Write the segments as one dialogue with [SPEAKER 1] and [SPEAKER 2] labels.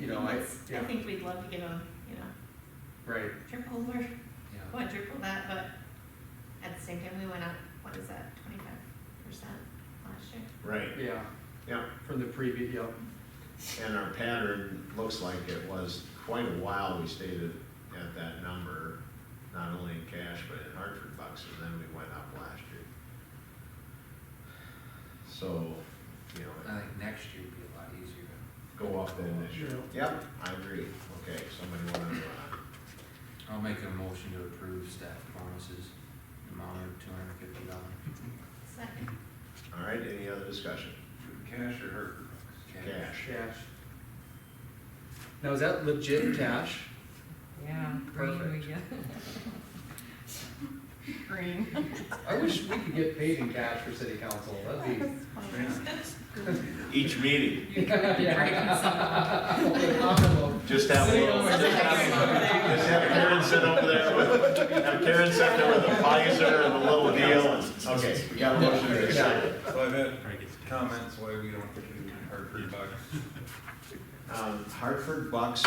[SPEAKER 1] you know, I,
[SPEAKER 2] Let's-
[SPEAKER 1] yeah,
[SPEAKER 2] think we'd love to get on, you know,
[SPEAKER 1] right,
[SPEAKER 2] triple or,
[SPEAKER 3] Yeah.
[SPEAKER 2] what, triple that, but at the same time, we went up, what is that, twenty-five percent last year?
[SPEAKER 4] Right,
[SPEAKER 1] yeah,
[SPEAKER 4] yeah,
[SPEAKER 1] from the previous, yep,
[SPEAKER 4] and our pattern looks like it was quite a while we stayed at, at that number, not only in cash, but in Hartford bucks, and then we went up last year. So, you know,
[SPEAKER 3] I think next year would be a lot easier.
[SPEAKER 4] go up then this year.
[SPEAKER 1] Yeah.
[SPEAKER 4] Yep, I agree, okay, somebody wanna, uh,
[SPEAKER 3] I'll make a motion to approve staff bonuses, amount of two hundred and fifty dollars.
[SPEAKER 2] Second,
[SPEAKER 4] all right, any other discussion?
[SPEAKER 3] Cash or her?
[SPEAKER 4] Cash,
[SPEAKER 1] cash. Now, is that legit cash?
[SPEAKER 5] Yeah, green we
[SPEAKER 1] Perfect.
[SPEAKER 5] get.
[SPEAKER 2] green.
[SPEAKER 1] I wish we could get paid in cash for city council, that'd be.
[SPEAKER 4] each meeting,
[SPEAKER 5] You could be drinking some.
[SPEAKER 4] just have a
[SPEAKER 1] Sitting
[SPEAKER 4] little.
[SPEAKER 1] over
[SPEAKER 4] Just
[SPEAKER 1] there.
[SPEAKER 4] have Karen sit over there with, have Karen sit there with a Pfizer and a little deal, and, okay, we got a motion to second.
[SPEAKER 6] So I've had comments why we don't do Hartford Bucks.
[SPEAKER 4] Um, Hartford Bucks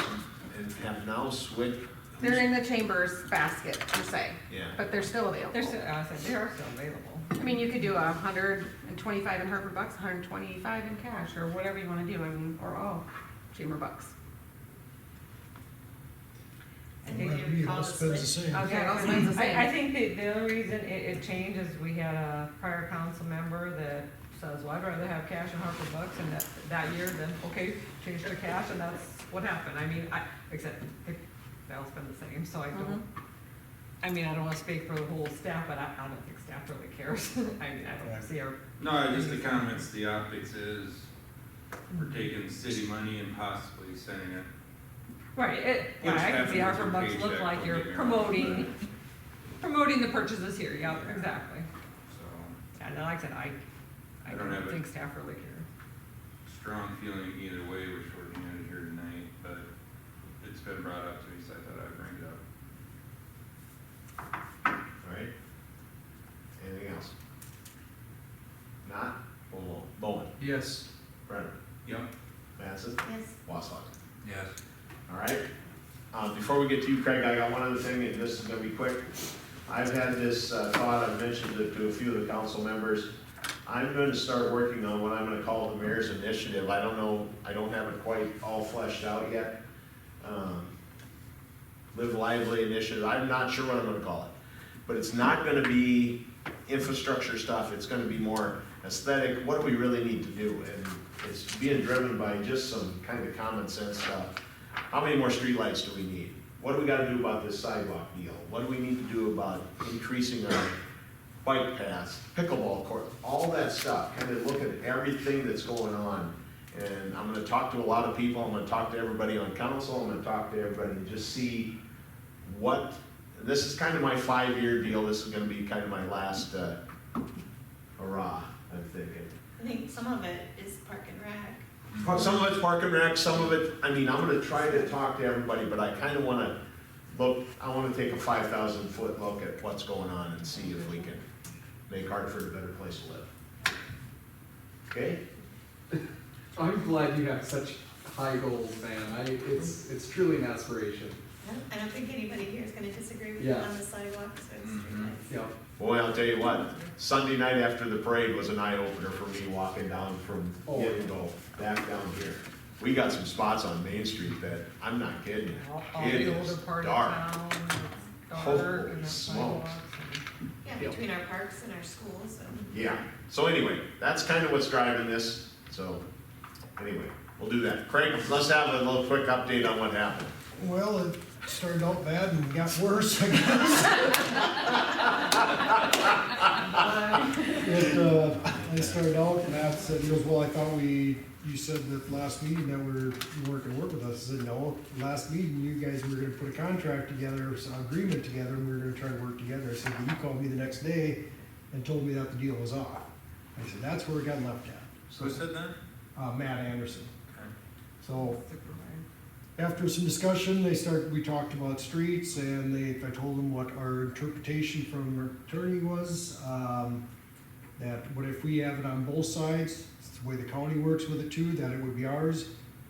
[SPEAKER 4] and have now switched.
[SPEAKER 7] They're in the chamber's basket per se,
[SPEAKER 4] Yeah,
[SPEAKER 7] but they're still available.
[SPEAKER 5] There's, I said, they are still available,
[SPEAKER 7] I mean, you could do a hundred and twenty-five in Harper bucks, hundred and twenty-five in cash, or whatever you wanna do, I mean, or all chamber bucks.
[SPEAKER 2] I think it would call this like-
[SPEAKER 7] Okay, those ones the same.
[SPEAKER 5] I, I think the, the only reason it, it changed is we had a prior council member that says, well, I'd rather have cash and Harper bucks, and that, that year, then, okay, change to cash, and that's what happened, I mean, I, except, it, that's been the same, so I
[SPEAKER 7] Mhm.
[SPEAKER 5] don't, I mean, I don't wanna speak for the whole staff, but I, I don't think staff really cares, I mean, I don't see our
[SPEAKER 6] No, just the comments, the optics is, we're taking city money and possibly sending it.
[SPEAKER 5] Right, it,
[SPEAKER 6] which
[SPEAKER 5] yeah, I can see how
[SPEAKER 6] happens
[SPEAKER 5] her
[SPEAKER 6] with
[SPEAKER 5] bucks look
[SPEAKER 6] paycheck,
[SPEAKER 5] like
[SPEAKER 6] don't
[SPEAKER 5] you're
[SPEAKER 6] get me wrong,
[SPEAKER 5] promoting, promoting the purchases here, yeah,
[SPEAKER 6] Yeah.
[SPEAKER 5] exactly.
[SPEAKER 6] but, So,
[SPEAKER 5] And then like I said, I, I
[SPEAKER 6] I don't have
[SPEAKER 5] don't
[SPEAKER 6] it.
[SPEAKER 5] think staff really care.
[SPEAKER 6] strong feeling either way, we're shorting it here tonight, but it's been brought up to me, so I thought I'd bring it up.
[SPEAKER 4] alright. Anything else? Not, Bull- Bowen,
[SPEAKER 1] Yes,
[SPEAKER 4] Brennan,
[SPEAKER 6] Yep.
[SPEAKER 4] Mattson,
[SPEAKER 2] Yes,
[SPEAKER 4] Wasshaw.
[SPEAKER 3] Yes.
[SPEAKER 4] All right. Um, before we get to you, Craig, I got one other thing, and this is gonna be quick. I've had this uh, thought, I've mentioned it to a few of the council members. I'm gonna start working on what I'm gonna call the mayor's initiative. I don't know, I don't have it quite all fleshed out yet. Um, Live lively initiative, I'm not sure what I'm gonna call it. But it's not gonna be infrastructure stuff, it's gonna be more aesthetic, what do we really need to do? And it's being driven by just some kind of common sense stuff. How many more streetlights do we need? What do we gotta do about this sidewalk deal? What do we need to do about increasing our bike paths, pickleball court, all that stuff? Kind of look at everything that's going on. And I'm gonna talk to a lot of people, I'm gonna talk to everybody on council, I'm gonna talk to everybody, and just see what, this is kind of my five-year deal, this is gonna be kind of my last, uh, hurrah, I'm thinking.
[SPEAKER 2] I think some of it is park and rec.
[SPEAKER 4] Well, Some of it's park and rec, some of it, I mean, I'm gonna try to talk to everybody, but I kinda wanna look, I wanna take a five thousand foot look at what's going on and see if we can make Hartford a better place to live. Okay?
[SPEAKER 1] I'm glad you have such high goals, man, I, it's, it's truly an aspiration,
[SPEAKER 2] I don't- I don't think anybody here is gonna disagree with you
[SPEAKER 1] Yeah. Mm-hmm.
[SPEAKER 2] on the sidewalks or the
[SPEAKER 3] Mhm.
[SPEAKER 2] streetlights.
[SPEAKER 1] yeah.
[SPEAKER 4] Boy, I'll tell you what, Sunday night after the parade was an eye opener for me walking down from
[SPEAKER 1] Oh.
[SPEAKER 4] Yettingville back down here. We got some spots on Main Street that, I'm not kidding
[SPEAKER 5] All-
[SPEAKER 4] you,
[SPEAKER 5] all
[SPEAKER 4] it
[SPEAKER 5] the
[SPEAKER 4] is
[SPEAKER 5] older part of
[SPEAKER 4] dark.
[SPEAKER 5] town, it's dark,
[SPEAKER 4] Holy
[SPEAKER 5] and the
[SPEAKER 4] smokes.
[SPEAKER 5] sidewalks. and-
[SPEAKER 2] Yeah,
[SPEAKER 1] Yep.
[SPEAKER 2] between our parks and our schools and.
[SPEAKER 4] Yeah, so anyway, that's kind of what's driving this, so, anyway, we'll do that. Craig, let's have a little quick update on what happened.
[SPEAKER 8] Well, it started out bad and got worse, I guess. It, uh, I started out, Matt said, he goes, well, I thought we, you said that last meeting that we're, you weren't gonna work with us. I said, no, last meeting, you guys were gonna put a contract together, some agreement together, and we were gonna try to work together. I said, well, you called me the next day and told me that the deal was off. I said, that's where it got left at.
[SPEAKER 6] Who said that?
[SPEAKER 8] Uh, Matt Anderson.
[SPEAKER 6] Okay.
[SPEAKER 8] So,
[SPEAKER 5] Supervisor.
[SPEAKER 8] after some discussion, they start, we talked about streets and they, I told them what our interpretation from our attorney was. Um, that what if we have it on both sides, it's the way the county works with it too, that it would be ours.